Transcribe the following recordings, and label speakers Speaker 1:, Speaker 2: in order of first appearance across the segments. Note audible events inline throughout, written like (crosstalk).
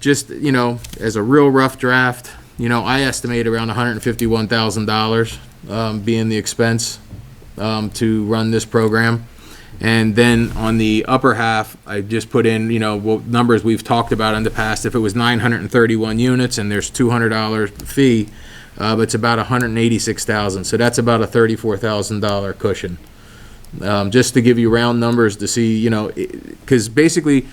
Speaker 1: just, you know, as a real rough draft, you know, I estimate around hundred and fifty-one thousand dollars, um, being the expense, um, to run this program. And then on the upper half, I just put in, you know, what numbers we've talked about in the past. If it was nine hundred and thirty-one units and there's two hundred dollar fee, uh, it's about hundred and eighty-six thousand, so that's about a thirty-four thousand dollar cushion. Um, just to give you round numbers to see, you know, because basically,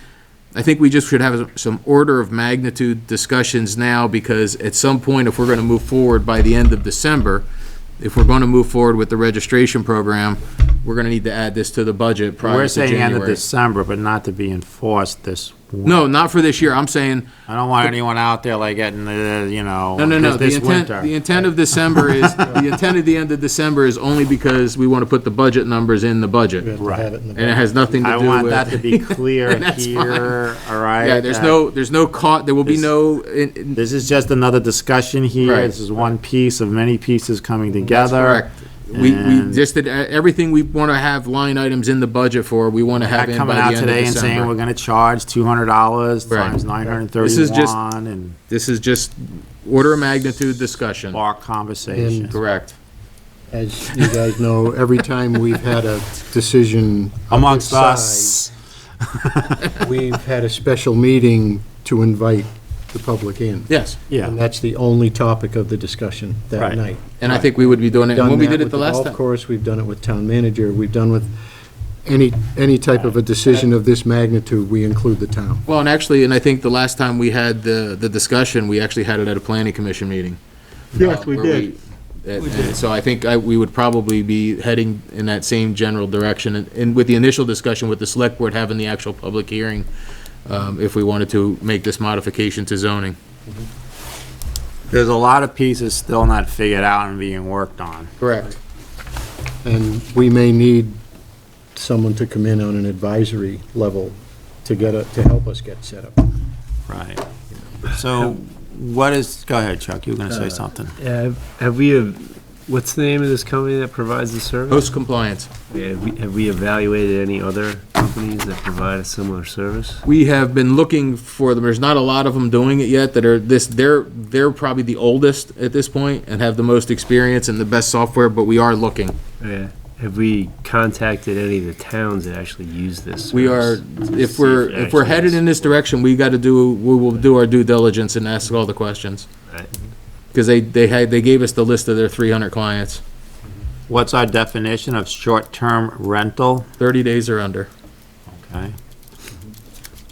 Speaker 1: I think we just should have some order of magnitude discussions now, because at some point, if we're gonna move forward by the end of December, if we're gonna move forward with the registration program, we're gonna need to add this to the budget prior
Speaker 2: We're
Speaker 1: to
Speaker 2: saying end of
Speaker 1: January.
Speaker 2: December, but not to be enforced this. win-
Speaker 1: No, not for this year, I'm saying,
Speaker 2: I don't want anyone out there like getting, uh, you know,
Speaker 1: No, no, no.
Speaker 2: this
Speaker 1: The
Speaker 2: this
Speaker 1: intent, the
Speaker 2: winter.
Speaker 1: intent of December is, the intent of the end of December is only because we want to put the budget numbers in the budget.
Speaker 2: Right.
Speaker 1: And it has nothing to do
Speaker 2: I
Speaker 1: with.
Speaker 2: want that
Speaker 1: (laughs)
Speaker 2: to be clear
Speaker 1: That's fine.
Speaker 2: here, all right?
Speaker 1: Yeah, there's
Speaker 2: that-
Speaker 1: no, there's no caught, there will be
Speaker 2: This-
Speaker 1: no, in- in-
Speaker 2: This is just another discussion here.
Speaker 1: Right.
Speaker 2: This is one piece of many pieces coming together.
Speaker 1: correct. We, we
Speaker 2: And-
Speaker 1: just did, uh, everything we want to have line items in the budget for, we want to
Speaker 2: Not
Speaker 1: have in by
Speaker 2: coming
Speaker 1: the
Speaker 2: out
Speaker 1: end of
Speaker 2: today and saying we're
Speaker 1: December.
Speaker 2: gonna charge two hundred dollars
Speaker 1: Right.
Speaker 2: times nine hundred and
Speaker 1: This is just-
Speaker 2: thirty-one and
Speaker 1: This is just order of magnitude discussion.
Speaker 2: bar conversation.
Speaker 1: Correct.
Speaker 3: As you guys know, every time we've had a decision. of
Speaker 2: Amongst
Speaker 3: this
Speaker 2: us.
Speaker 3: size, We've had a special meeting to invite the public in.
Speaker 1: Yes.
Speaker 3: And
Speaker 2: Yeah,
Speaker 3: that's the only topic of the discussion
Speaker 2: Right.
Speaker 3: that night.
Speaker 1: And I think we would be doing it, and
Speaker 3: Done
Speaker 1: when we
Speaker 3: that
Speaker 1: did it
Speaker 3: with
Speaker 1: the last
Speaker 3: Golf
Speaker 1: time.
Speaker 3: course, we've done it with town manager, we've done with any, any type of a decision of this magnitude, we include the town.
Speaker 1: Well, and actually, and I think the last time we had the, the discussion, we actually had it at a planning commission meeting.
Speaker 4: Yes, we
Speaker 1: where
Speaker 4: did.
Speaker 1: and- and So I think I, we would probably be heading in that same general direction, and- and with the initial discussion with the select board having the actual public hearing, um, if we wanted to make this modification to zoning.
Speaker 2: there's a lot of pieces still not figured out and being worked on.
Speaker 1: Correct.
Speaker 3: And we may need someone to come in on an advisory level to get, a- to help us get set up.
Speaker 2: Right. So what is, go ahead, Chuck, you were going to say something.
Speaker 5: Have have we, ev- what's the name of this company that provides the service?
Speaker 1: Host compliance.
Speaker 5: Have we- have we evaluated any other companies that provide a similar service?
Speaker 1: We have been looking for them. There's not a lot of them doing it yet that are this, they're, they're probably the oldest at this point and have the most experience and the best software, but we are looking.
Speaker 5: Yeah. Have we contacted any of the towns that actually use this?
Speaker 1: We are,
Speaker 5: service?
Speaker 1: if we're, if we're headed in this direction, we gotta do, we will do our due diligence and ask all the questions.
Speaker 5: Right.
Speaker 1: Cause they, they had, they gave us the list of their three hundred clients,
Speaker 2: What's our definition of short-term rental?
Speaker 1: thirty days or under,
Speaker 2: Okay.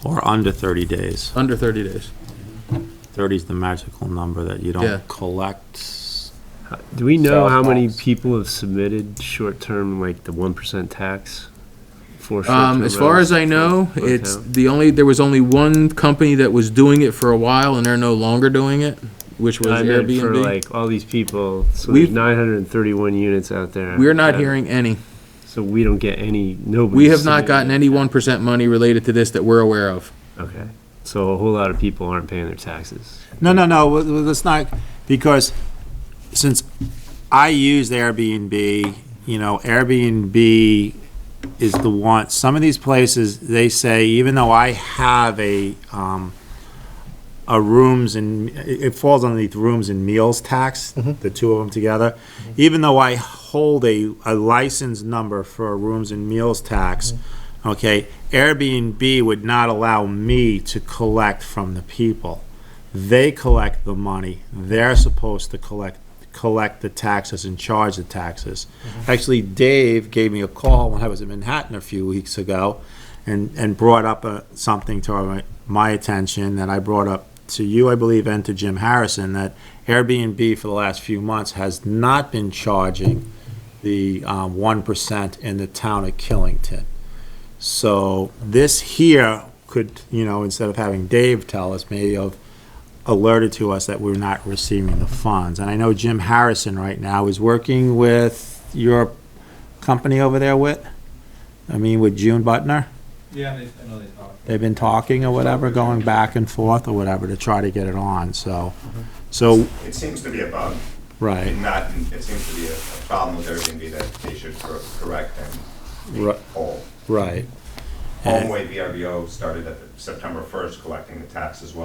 Speaker 2: Or under 30 days.
Speaker 1: under thirty days.
Speaker 5: (laughs)
Speaker 2: 30 is the magical number that you
Speaker 1: Yeah.
Speaker 2: don't collect.
Speaker 5: Do we know how many
Speaker 2: Softballs.
Speaker 5: people have submitted short-term, like the one percent tax? for
Speaker 1: Um,
Speaker 5: short-term
Speaker 1: as far
Speaker 5: rentals
Speaker 1: as I
Speaker 5: for-
Speaker 1: know,
Speaker 5: for
Speaker 1: it's
Speaker 5: town?
Speaker 1: the only, there was only one company that was doing it for a while and they're no longer doing it, which was
Speaker 5: I meant for
Speaker 1: Airbnb.
Speaker 5: like all these people, so
Speaker 1: We've-
Speaker 5: there's nine hundred and thirty-one units out there.
Speaker 1: We're not
Speaker 5: that-
Speaker 1: hearing any.
Speaker 5: So we don't get any, nobody.
Speaker 1: We have not
Speaker 5: submitted.
Speaker 1: gotten any one percent money related to this that we're aware of.
Speaker 5: Okay, so a whole lot of people aren't paying their taxes.
Speaker 2: No, no, no, w- w- let's not, because since I used Airbnb, you know, Airbnb is the one, some of these places, they say, even though I have a, um, a rooms and, it it falls underneath rooms and meals tax, the two of them together. Even though I hold a, a license number for a rooms and meals tax, okay, Airbnb would not allow me to collect from the people they collect the money. They're supposed to collect collect the taxes and charge the taxes. Actually, Dave gave me a call when I was in Manhattan a few weeks ago, and and brought up uh something to my, my attention that I brought up to you, I believe, and to Jim Harrison that Airbnb for the last few months has not been charging the um, one in the town of Killington. So this here could, you know, instead of having Dave tell us, maybe of alerted to us that we're not receiving the funds. And I know Jim Harrison right now is working with your company over there, Whit? I mean, with June Butner?
Speaker 4: Yeah, they, I know they talk.
Speaker 2: They've been talking or whatever, going back and forth or whatever to try to get it on, so. So,
Speaker 6: It seems to be a bug,
Speaker 2: right,
Speaker 6: not, it seems to be a a problem with Airbnb that they should cor- correct and
Speaker 2: Ri-
Speaker 6: make whole.
Speaker 2: right.
Speaker 6: Homeway VRBO started at the September 1st collecting the tax as well.